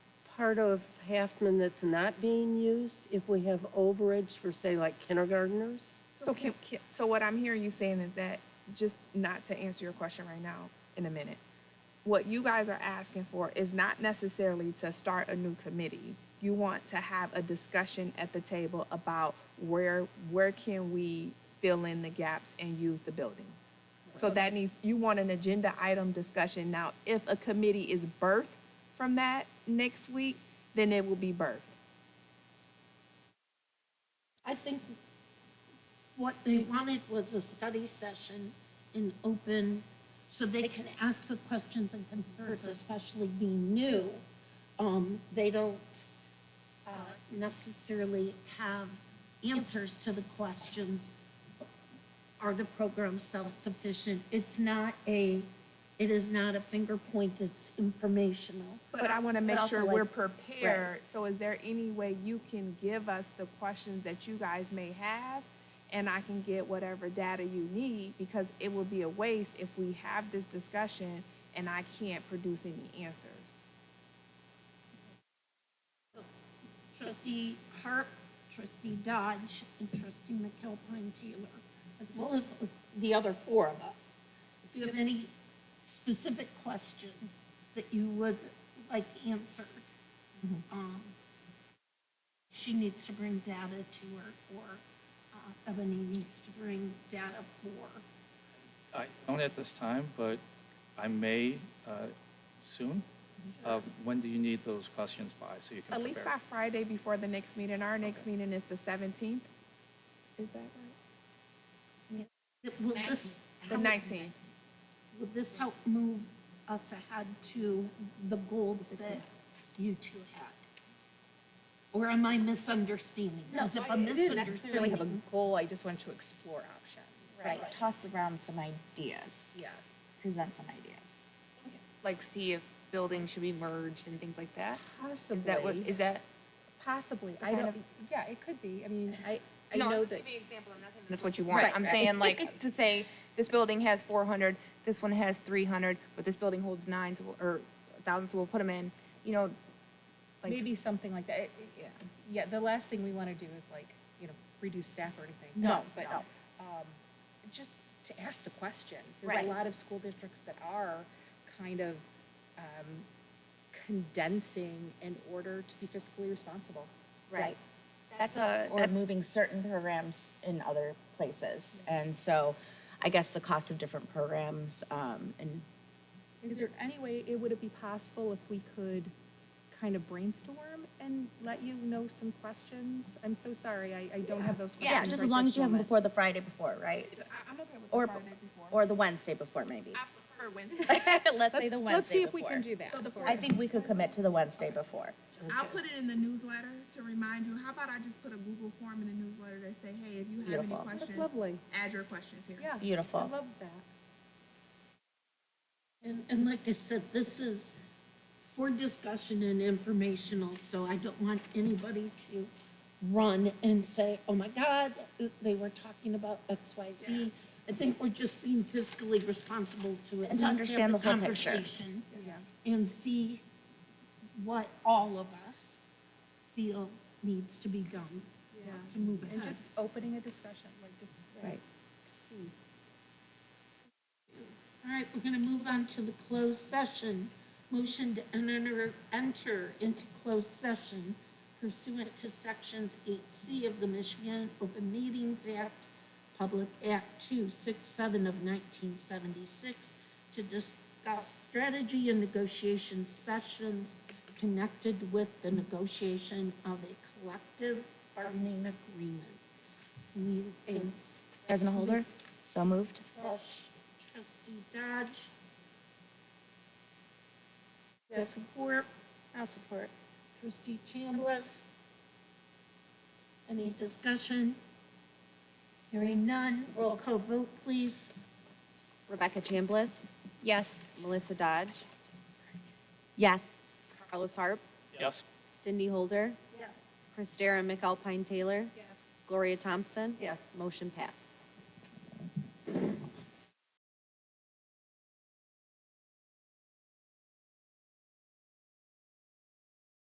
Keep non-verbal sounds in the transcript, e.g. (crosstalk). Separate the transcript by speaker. Speaker 1: part of Halfman that's not being used if we have overage for, say, like kindergarteners?
Speaker 2: So can, can, so what I'm hearing you saying is that, just not to answer your question right now, in a minute, what you guys are asking for is not necessarily to start a new committee. You want to have a discussion at the table about where, where can we fill in the gaps and use the building? So that needs, you want an agenda item discussion. Now, if a committee is birthed from that next week, then it will be birthed.
Speaker 3: I think what they wanted was a study session in open, so they can ask the questions and concerns, especially being new. Um, they don't uh, necessarily have answers to the questions. Are the programs self-sufficient? It's not a, it is not a finger point, it's informational.
Speaker 2: But I want to make
Speaker 3: also,
Speaker 2: sure
Speaker 3: like,
Speaker 2: we're prepared. So is there any way you can give us the questions that you guys may have? And I can get whatever data you need because it will be a waste if we have this discussion and I can't produce any answers.
Speaker 3: Trustee Hart, trustee Dodge, and trustee McAlpine Taylor, as well as the other four of us. If you have any specific questions that you would like answered, um, she needs to bring data to her, or uh, Ebony needs to bring data for.
Speaker 4: I don't at this time, but I may uh, soon. Uh, When do you need those questions by, so you can
Speaker 2: At least by
Speaker 4: prepare?
Speaker 2: Friday before the next meeting. Our next
Speaker 4: Okay.
Speaker 2: meeting is the seventeenth. Is that right?
Speaker 3: Will this?
Speaker 2: The
Speaker 3: help-
Speaker 2: nineteenth.
Speaker 3: Will this help move us ahead to the goals that you two had? Or am I misunderstanding? Because if I'm
Speaker 5: I didn't necessarily have a
Speaker 3: misunderstanding,
Speaker 5: goal, I just wanted to explore options.
Speaker 6: Right, toss around some ideas,
Speaker 5: Yes.
Speaker 6: present some ideas.
Speaker 7: like see if buildings should be merged and things like that? Is that what,
Speaker 1: Possibly.
Speaker 7: is that?
Speaker 5: Possibly, I
Speaker 7: Kind
Speaker 5: don't,
Speaker 7: of-
Speaker 5: yeah, it could be, I mean, I, I
Speaker 7: No, I'm
Speaker 5: know
Speaker 7: just
Speaker 5: that,
Speaker 7: giving an example, I'm not saying That's what you want.
Speaker 5: Right,
Speaker 7: I'm
Speaker 5: right.
Speaker 7: saying (laughs) like, to say, this building has four hundred, this one has three hundred, but this building holds nine, so we'll- or thousands, so we'll put them in, you know, like.
Speaker 5: maybe something like that, It- it- yeah. Yeah, the last thing we want to do is like, you know, reduce staff or anything.
Speaker 6: No,
Speaker 5: But,
Speaker 6: no.
Speaker 5: um, just to ask the question. There's
Speaker 6: Right.
Speaker 5: a lot of school districts that are kind of, um, condensing in order to be fiscally responsible.
Speaker 6: Right. That's a. Or moving certain programs in other places. And so I guess the cost of different programs, um, and
Speaker 5: Is there any way, it would it be possible if we could kind of brainstorm and let you know some questions? I'm so sorry, I, I don't have those questions.
Speaker 6: yeah, just
Speaker 5: right
Speaker 6: as long
Speaker 5: this
Speaker 6: as you have them
Speaker 5: moment.
Speaker 6: before the Friday before, right?
Speaker 2: I'm okay with
Speaker 6: Or-
Speaker 2: the Friday before.
Speaker 6: Or the Wednesday before, maybe.
Speaker 2: I prefer Wednesday.
Speaker 6: (laughs) Let's
Speaker 5: Let's-
Speaker 6: say the Wednesday before.
Speaker 5: Let's see if we can do that.
Speaker 2: So the
Speaker 5: for-
Speaker 6: I think we could commit to the Wednesday before.
Speaker 2: I'll put it in the newsletter to remind you. How about I just put a Google form in the newsletter that say, hey, if you have any
Speaker 6: Beautiful.
Speaker 5: That's
Speaker 2: questions,
Speaker 5: lovely,
Speaker 2: add your questions here.
Speaker 5: yeah. I
Speaker 6: Beautiful.
Speaker 5: love that.
Speaker 3: and, and like I said, this is for discussion and informational, so I don't want anybody to run and say, oh my God, they were talking about X, Y, Z. I think we're just being fiscally responsible to at
Speaker 6: And to
Speaker 3: least have
Speaker 6: understand
Speaker 3: the
Speaker 6: the whole picture.
Speaker 3: conversation. And see what all of us feel needs to be done to move
Speaker 5: And
Speaker 3: ahead.
Speaker 5: just opening a discussion, like just, like,
Speaker 6: Right.
Speaker 5: to see.
Speaker 3: All right, we're gonna move on to the closed session. Motion to enter, enter into closed session pursuant to sections eight C of the Michigan Open Meetings Act, Public Act two six seven of nineteen seventy-six to discuss strategy and negotiation sessions connected with the negotiation of a collective bargaining agreement. Need a
Speaker 6: President Holder, so moved.
Speaker 3: Trust- Trustee Dodge. Do I support? I'll support. Trustee Chambliss. Any discussion? Hearing none, roll call vote, please.
Speaker 6: Rebecca Chambliss?
Speaker 7: Yes.
Speaker 6: Melissa Dodge? Yes. Carlos Harp?
Speaker 4: Yes?
Speaker 6: Cindy Holder?
Speaker 3: Yes.
Speaker 6: Christara McAlpine Taylor?
Speaker 3: Yes.
Speaker 6: Gloria Thompson?
Speaker 1: Yes.
Speaker 6: Motion passed.